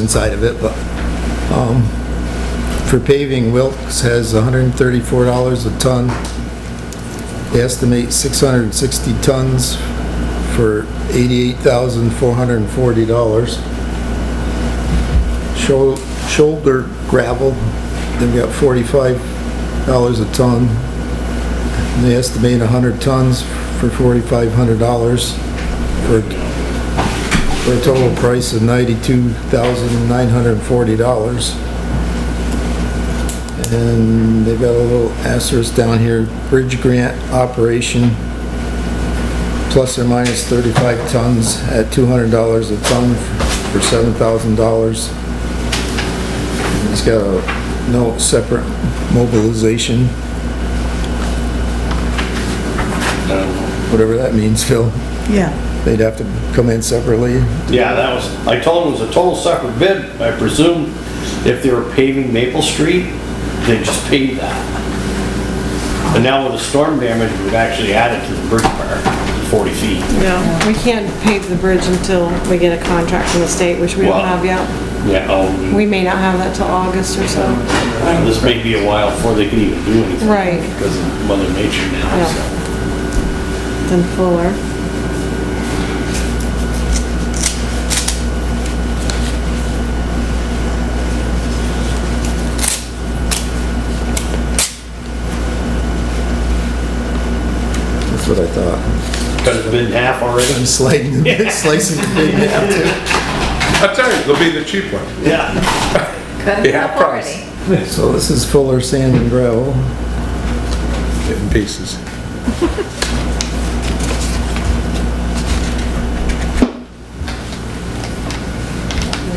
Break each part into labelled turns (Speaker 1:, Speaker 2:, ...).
Speaker 1: inside of it, but, um, for paving, Wilkes has $134 a ton. They estimate 660 tons for $88,440. Shou- Shoulder gravel, they've got $45 a ton. And They estimate 100 tons for $4,500 for for a total price of $92,940. And they've got a little asterisk down here, bridge grant operation, plus or minus 35 tons at $200 a ton for $7,000. It's got a no separate mobilization, whatever that means, Phil.
Speaker 2: Yeah,
Speaker 1: They'd have to come in separately.
Speaker 3: Yeah, that was, I told them it was a total separate bid. I presume if they were paving Maple Street, they just paved that. But now with the storm damage, we've actually added to the bridge part, 40 feet.
Speaker 4: No, we can't pave the bridge until we get a contract from the state, which we don't
Speaker 3: Wow.
Speaker 4: have yet.
Speaker 3: Yeah, um,
Speaker 4: We may not have that till August or so.
Speaker 3: this may be a while before they can even do anything.
Speaker 4: Right.
Speaker 3: Because of Mother Nature now,
Speaker 4: Yeah.
Speaker 3: so.
Speaker 4: Then Fuller.
Speaker 1: That's what I thought.
Speaker 3: Cut his bid in half already?
Speaker 1: I'm sliding, slicing the big half too.
Speaker 5: I tell you, they'll be the cheap one.
Speaker 3: Yeah.
Speaker 2: cut
Speaker 5: They
Speaker 2: it
Speaker 5: have
Speaker 2: up
Speaker 5: price.
Speaker 2: already.
Speaker 1: So this is Fuller Sand and Gravel.
Speaker 5: In pieces.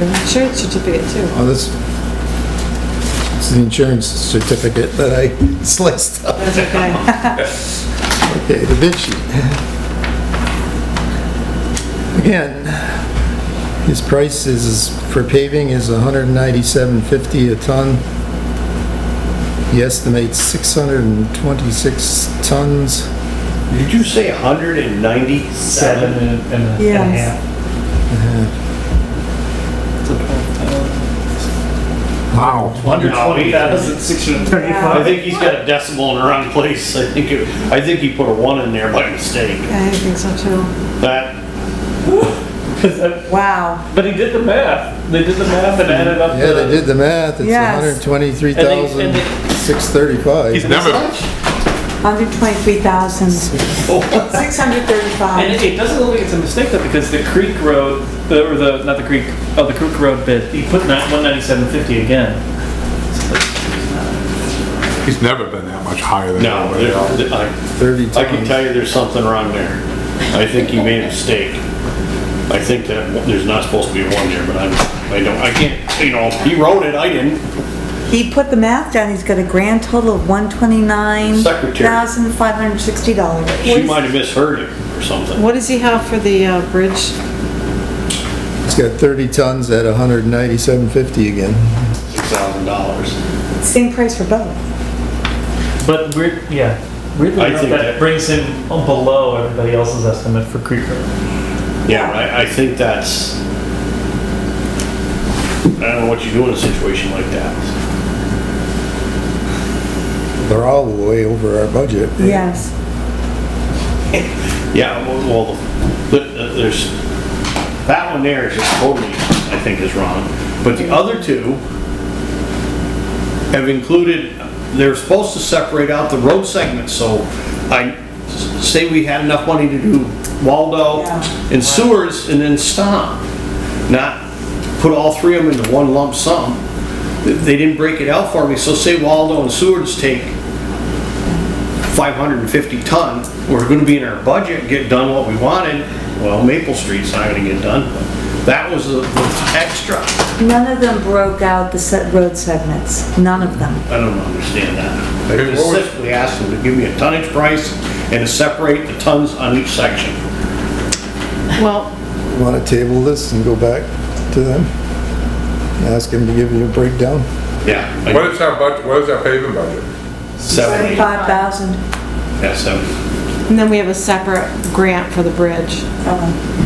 Speaker 4: Insurance certificate too.
Speaker 1: Oh, this, this is the insurance certificate that I sliced up.
Speaker 4: That's okay.
Speaker 1: Okay, the bid sheet. Again, his price is, for paving is hundred and ninety-seven fifty a ton. He estimates six hundred and twenty-six tons.
Speaker 3: Did you say 197?
Speaker 6: and a- and a
Speaker 4: Yes.
Speaker 6: half.
Speaker 1: Wow.
Speaker 3: Under
Speaker 6: 20,635.
Speaker 3: I think he's got a decimal in the wrong place. I think, it- I think he put a one in there by mistake.
Speaker 4: I think so too.
Speaker 3: That,
Speaker 6: 'Cause I-
Speaker 4: Wow.
Speaker 6: But he did the math. They did the math and added up
Speaker 1: Yeah, they
Speaker 6: the,
Speaker 1: did the math, it's
Speaker 4: Yes.
Speaker 1: hundred twenty-three
Speaker 6: And they-
Speaker 1: thousand,
Speaker 6: and they-
Speaker 1: six thirty-five.
Speaker 5: He's never,
Speaker 4: Under twenty-three thousand,
Speaker 3: Oh.
Speaker 4: six hundred
Speaker 6: and
Speaker 4: thirty-five.
Speaker 6: it, it doesn't look like it's a mistake though, because the Creek Road, the, or the, not the Creek, oh, the Creek Road bid, he put that 197.50 again.
Speaker 5: he's never been that much higher than
Speaker 3: no,
Speaker 5: everybody
Speaker 3: there-
Speaker 5: else.
Speaker 3: I,
Speaker 1: Thirty
Speaker 3: I can
Speaker 1: tons.
Speaker 3: tell you there's something wrong there. I think he made a mistake. I think that there's not supposed to be one there, but I, I don't, I can't, you know, he wrote it, I didn't.
Speaker 7: He put the math down, he's got a grand total of one twenty-nine thousand five hundred sixty dollars.
Speaker 3: She might have misheard it or something.
Speaker 4: What does he have for the uh, bridge?
Speaker 1: It's got thirty tons at hundred and ninety-seven fifty again.
Speaker 3: Six thousand dollars.
Speaker 7: Same price for both.
Speaker 6: But we're, yeah, weirdly
Speaker 3: I
Speaker 6: enough,
Speaker 3: think
Speaker 6: that,
Speaker 3: that-
Speaker 6: brings him below everybody else's estimate for Creek Road.
Speaker 3: Yeah, I, I think that's, I don't know what you do in a situation like that.
Speaker 1: They're all way over our budget.
Speaker 7: Yes.
Speaker 3: Yeah, well, the- the- there's, that one there is just totally, I think is wrong. But the other two have included, they're supposed to separate out the road segments, so I, say we had enough money to do Waldo
Speaker 7: Yeah.
Speaker 3: and sewers and then stop. Not put all three of them into one lump sum. They didn't break it out for me, so say Waldo and sewers take 550 ton, we're gonna be in our budget, get done what we wanted. Well, Maple Street's not gonna get done, but that was the the extra.
Speaker 7: None of them broke out the set road segments, none of them.
Speaker 3: I don't understand that.
Speaker 5: Hey,
Speaker 3: I
Speaker 5: what was-
Speaker 3: specifically asked them to give me a tonnage price and to separate the tons on each section.
Speaker 4: Well,
Speaker 1: Want to table this and go back to them? And Ask them to give you a breakdown?
Speaker 3: Yeah. like
Speaker 5: What is our budget, what is our paving budget?
Speaker 3: Seventy,
Speaker 7: Five thousand.
Speaker 3: yeah, seventy.
Speaker 4: and then we have a separate grant for the bridge.
Speaker 7: Oh,